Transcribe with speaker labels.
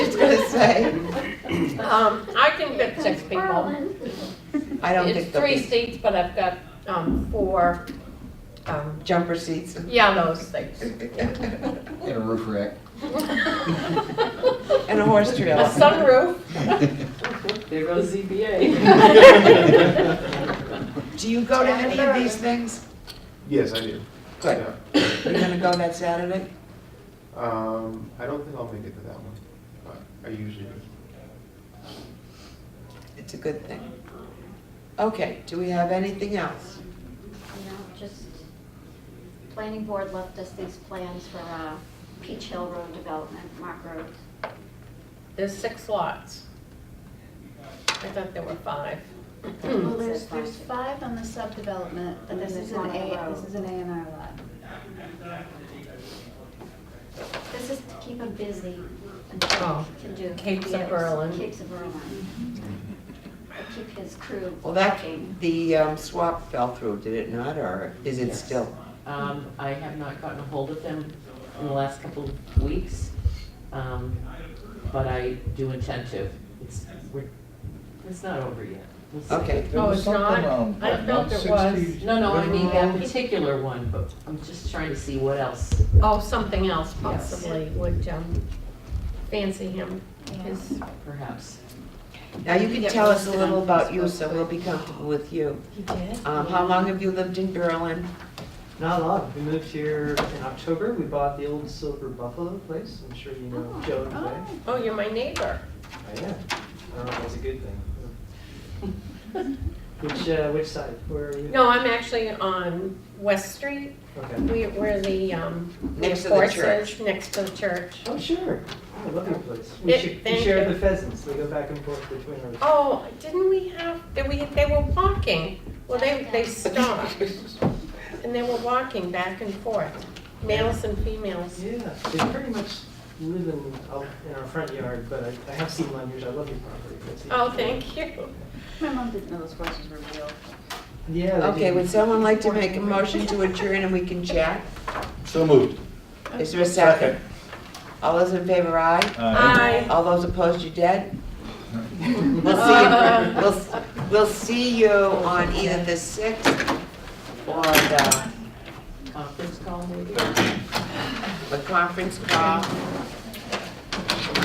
Speaker 1: Um, I can get six people.
Speaker 2: I don't
Speaker 1: It's
Speaker 2: think there'll
Speaker 1: three
Speaker 2: be
Speaker 1: seats, but I've got, um, four, um,
Speaker 2: jumper seats.
Speaker 1: yeah, those things.
Speaker 2: And
Speaker 3: In a roof rack.
Speaker 2: a horse
Speaker 1: A
Speaker 2: trailer.
Speaker 1: sunroof.
Speaker 4: There goes ZBA.
Speaker 3: Yes,
Speaker 2: Do you go to any of these things?
Speaker 5: I do.
Speaker 2: Good. You're gonna go that Saturday?
Speaker 5: Yeah. Um, I don't think I'll make it to that one, but I usually do.
Speaker 2: It's a good thing. Okay, do we have anything else?
Speaker 6: You know, just, planning board left us these plans for uh, Peach Hill Road Development, Mark Road.
Speaker 1: There's six lots. I thought there were five.
Speaker 7: Well, there's,
Speaker 6: Says
Speaker 7: there's
Speaker 6: plastic.
Speaker 7: five on the sub-development, but
Speaker 6: And
Speaker 7: this
Speaker 6: there's
Speaker 7: is an
Speaker 6: one on the
Speaker 7: A,
Speaker 6: road.
Speaker 7: this is an A and R lot.
Speaker 6: This is to keep them busy until
Speaker 1: Oh,
Speaker 6: he can do.
Speaker 1: Capes of
Speaker 6: yeah,
Speaker 1: Berlin.
Speaker 6: Capes of Berlin. To keep his crew
Speaker 2: Well, that,
Speaker 6: working.
Speaker 2: the um, swap fell through, did it not, or is it
Speaker 4: Yes.
Speaker 2: still?
Speaker 4: Um, I have not gotten a hold of them in the last couple of weeks, um, but I do intend to. It's, we're, it's not over yet. We'll see.
Speaker 2: Okay,
Speaker 1: Oh, it's not? I thought there was.
Speaker 4: No, no, I mean that particular one, but I'm just trying to see what else.
Speaker 1: Oh, something else
Speaker 4: Yes.
Speaker 1: possibly would, um, fancy him, his
Speaker 4: Perhaps.
Speaker 2: now you can
Speaker 1: Yeah,
Speaker 2: tell us a
Speaker 1: we'll sit
Speaker 2: little
Speaker 1: on
Speaker 2: about
Speaker 1: this
Speaker 2: you,
Speaker 1: one.
Speaker 2: so we'll be comfortable with you.
Speaker 1: He did?
Speaker 2: Um, How long have you lived in Berlin?
Speaker 8: Not a lot. We moved here in October. We bought the old Silver Buffalo place. I'm sure you know Joe and I.
Speaker 1: Oh, you're my neighbor.
Speaker 8: I am. I don't know if that's a good thing. Which, uh, which side? Where are you?
Speaker 1: No, I'm actually on West Street.
Speaker 8: Okay.
Speaker 1: We, we're the, um,
Speaker 2: Next to the
Speaker 1: horses,
Speaker 2: church.
Speaker 1: Next to the church.
Speaker 8: Oh, sure. I love your place. We
Speaker 1: Yeah,
Speaker 8: should, we
Speaker 1: thank
Speaker 8: share
Speaker 1: you.
Speaker 8: the pheasants. They go back and forth between our.
Speaker 1: Oh, didn't we have, they, we, they were walking, well, they, they stopped, and they were walking back and forth, males and females.
Speaker 8: Yeah, they pretty much live in, out in our front yard, but I, I have seen Lanyards. I love your property. That's the-
Speaker 1: Oh, thank you.
Speaker 7: My mom didn't know those horses were real.
Speaker 8: Yeah. they
Speaker 2: Okay,
Speaker 8: do.
Speaker 2: would someone like to make a motion to adjourn and we can chat?
Speaker 3: So moved.
Speaker 2: Is there a second? All those in favor, aye?
Speaker 1: Aye.
Speaker 2: All those opposed, you dead? We'll see, you- we'll, we'll see you on either the sixth or the,
Speaker 4: Conference call maybe?
Speaker 2: the conference call